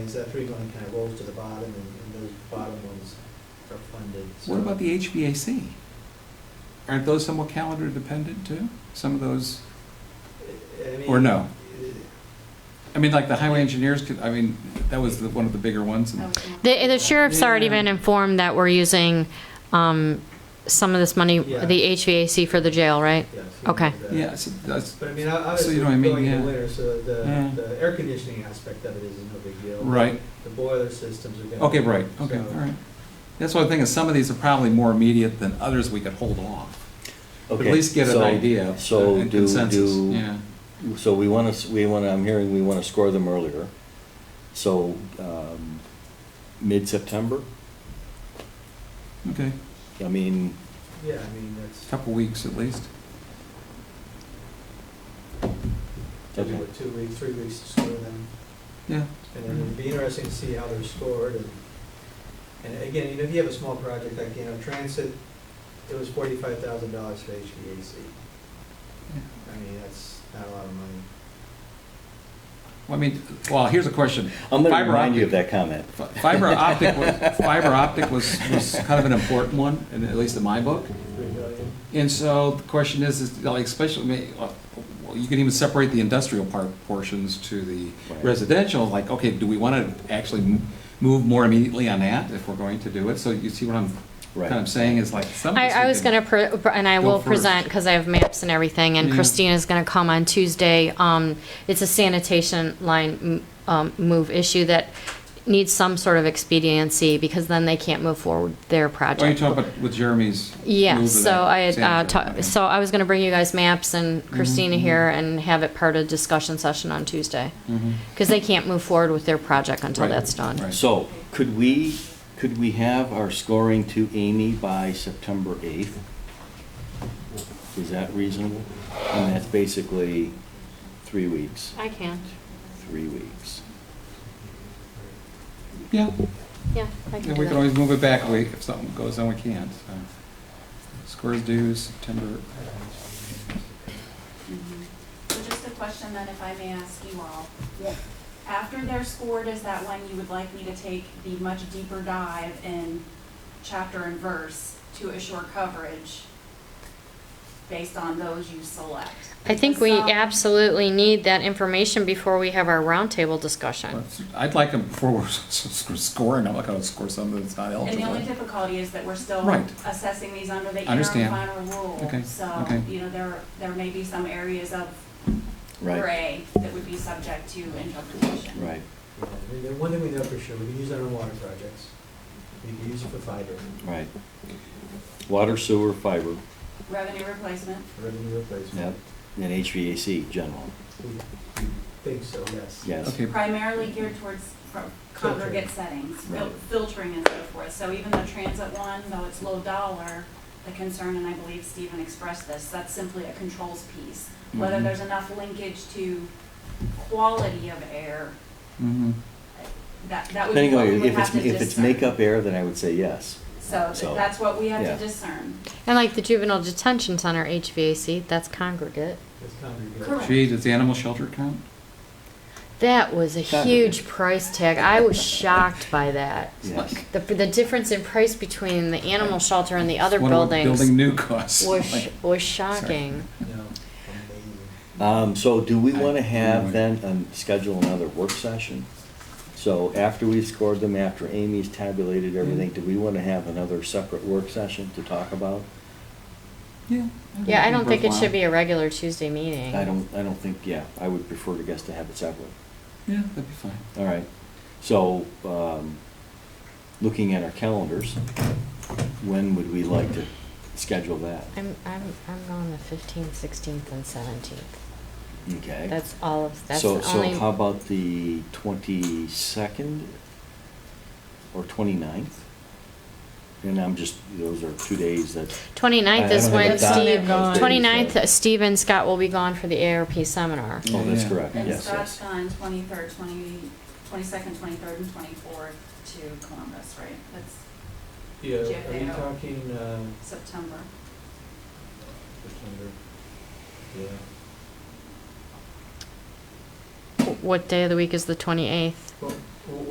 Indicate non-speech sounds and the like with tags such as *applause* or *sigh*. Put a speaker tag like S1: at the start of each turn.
S1: Because that three one kind of rolls to the bottom, and and those bottom ones are funded. so-
S2: What about the HVAC? Aren't those somewhat calendar dependent too? Some of those,
S1: I mean,
S2: or no?
S1: eh,
S2: I mean, like the highway engineers could, I mean, that was the- one of the bigger ones. and-
S3: The, the sheriff's already
S2: Yeah.
S3: been informed that we're using um, some of this money,
S1: Yeah.
S3: the HVAC for the jail, right?
S1: yes, you know,
S3: Okay.
S1: the-
S2: Yeah, so that's,
S1: But I mean, ob-
S2: So
S1: obviously,
S2: you know what I mean,
S1: going into
S2: yeah.
S1: winter, so the,
S2: Yeah.
S1: the air conditioning aspect of it is no big deal.
S2: right,
S1: The boiler systems are gonna.
S2: okay, right, okay,
S1: so-
S2: all right. That's what I'm thinking, some of these are probably more immediate than others we could hold off. At
S4: Okay,
S2: least get an
S4: so-
S2: idea uh,
S4: so
S2: and
S4: do-
S2: consensus,
S4: do-
S2: yeah.
S4: So we want to, we want to, I'm hearing we want to score them earlier. So um, mid-September?
S2: Okay,
S4: I mean,
S1: Yeah, I mean, that's,
S2: couple weeks at least.
S4: Okay.
S1: what, two weeks, three weeks to score them.
S2: Yeah,
S1: And then it'd be interesting to see how they're scored, and, and again, you know, if you have a small project like, you know, transit, it was forty-five thousand dollars for HVAC.
S2: yeah.
S1: I mean, that's not a lot of money.
S2: Well, I mean, well, here's a question.
S4: I'm going to
S2: Fiber
S4: remind you of
S2: optic-
S4: that comment.
S2: fi- Fiber optic, was- fiber optic was, was kind of an important one, in- at least in my book.
S1: Three million?
S2: And so the question is, is like especially, ma- uh, well, you can even separate the industrial part portions to the
S4: Right.
S2: residential, like, okay, do we want to actually m- move more immediately on that if we're going to do it? So you see what I'm,
S4: Right.
S2: kind of saying is like some of
S3: I,
S2: this we
S3: I was
S2: can-
S3: gonna, pre- pr- and I
S2: Go
S3: will
S2: first.
S3: present, because I have maps and everything, and
S2: Yeah.
S3: Christina's gonna come on Tuesday. Um, It's a sanitation line m- um, move issue that needs some sort of expediency, because then they can't move forward their project.
S2: Oh, you talking about with Jeremy's? move
S3: Yeah,
S2: of
S3: so
S2: that
S3: I, had, uh,
S2: sanitary
S3: ta-
S2: plan.
S3: so I was gonna bring you guys maps and Christina
S2: mhm.
S3: here and have it part of discussion session on Tuesday.
S2: Mhm.
S3: Because they can't move forward with their project until
S2: Right,
S3: that's done.
S2: right.
S4: So could we, could we have our scoring to Amy by September 8th? Is that reasonable? And that's basically three weeks,
S3: I can,
S4: three weeks.
S2: Yeah,
S3: yeah, I
S2: and we can always move it back a week if something goes on, we can't, so. Scores due September,
S5: So just a question then, if I may ask you all. After they're scored, is that when you would like me to take the much deeper dive in chapter and verse to assure coverage based on those you select?
S3: I think we
S5: Because um, some-
S3: absolutely need that information before we have our roundtable discussion.
S2: I'd like them before we're *laughs* s- s- scoring, I'm not gonna score something that's not
S5: And the only
S2: eligible.
S5: difficulty is that we're still
S2: Right.
S5: assessing these under the interim
S2: Understand.
S5: final rule.
S2: Okay,
S5: So,
S2: okay.
S5: you know, there, there may be some areas of
S4: Right,
S5: gray that would be subject to interpretation.
S4: right,
S1: Yeah, I mean, the one thing we know for sure, we can use it on water projects, we can use it for fiber,
S4: right. Water, sewer, fiber,
S5: Revenue replacement.
S1: for revenue
S4: yep,
S1: replacement.
S4: and HVAC, general,
S1: We we think so, yes.
S4: yes.
S2: Okay,
S5: primarily geared towards pro- congregate settings, fil-
S4: Right.
S5: filtering and so forth. So even the transit one, though it's low dollar, the concern, and I believe Stephen expressed this, that's simply a controls piece. Whether
S4: Mm-hmm.
S2: Mhm.
S5: there's enough linkage to quality of air,
S2: mhm.
S5: that, that would be
S4: Depending
S5: what
S4: on,
S5: we would
S4: if
S5: have
S4: it's,
S5: to discern.
S4: if it's makeup air, then I would say yes.
S5: So
S4: so,
S5: th- that's what we have
S4: yeah.
S5: to discern.
S3: And like the juvenile detention center HVAC, that's congregate.
S1: It's congregate.
S5: Correct.
S2: Gee, does the animal shelter count?
S3: That was a
S4: Congregate.
S3: huge price tag. I was shocked by that.
S4: Yes.
S3: The, the difference in price between the animal shelter and the other
S2: What are we
S3: buildings
S2: Building new costs. *laughs*
S3: was, sh- was shocking.
S1: No, amazing.
S4: Um, so do we want
S2: I-
S4: to have
S2: anyway.
S4: then, um, schedule another work session? So after we've scored them, after Amy's tabulated
S2: Mm.
S4: everything, do we want to have another separate work session to talk about?
S2: Yeah.
S3: Yeah, I don't think it should be a regular Tuesday
S5: Mm.
S3: meeting.
S4: I don't, I don't think, yeah, I would prefer to guess to have it separate.
S2: Yeah, that'd be fine.
S4: All right, so, um, looking at our calendars, when would we like to schedule that?
S3: I'm, I'm, I'm on the fifteenth, sixteenth, and seventeenth.
S4: Okay.
S3: That's all of, that's
S4: So,
S3: the only.
S4: so how about the twenty-second or 29th? And I'm just, those are two days that,
S3: Twenty-ninth is
S4: I don't have
S3: when
S4: it down.
S3: Steve,
S4: Those days, so-
S3: twenty-ninth, Steve and Scott will be gone for the ARP seminar.
S4: oh, that's
S2: Yeah.
S4: correct,
S5: And
S4: yes,
S5: Scott's
S4: yes.
S5: gone twenty-third, twenty, twenty-second, twenty-third, and twenty-fourth to Columbus, right? That's
S1: Yeah, are you
S5: JFAO.
S1: talking, uh,
S5: September.
S1: September? Yeah.
S3: What day of the week is the twenty-eighth?
S1: Well,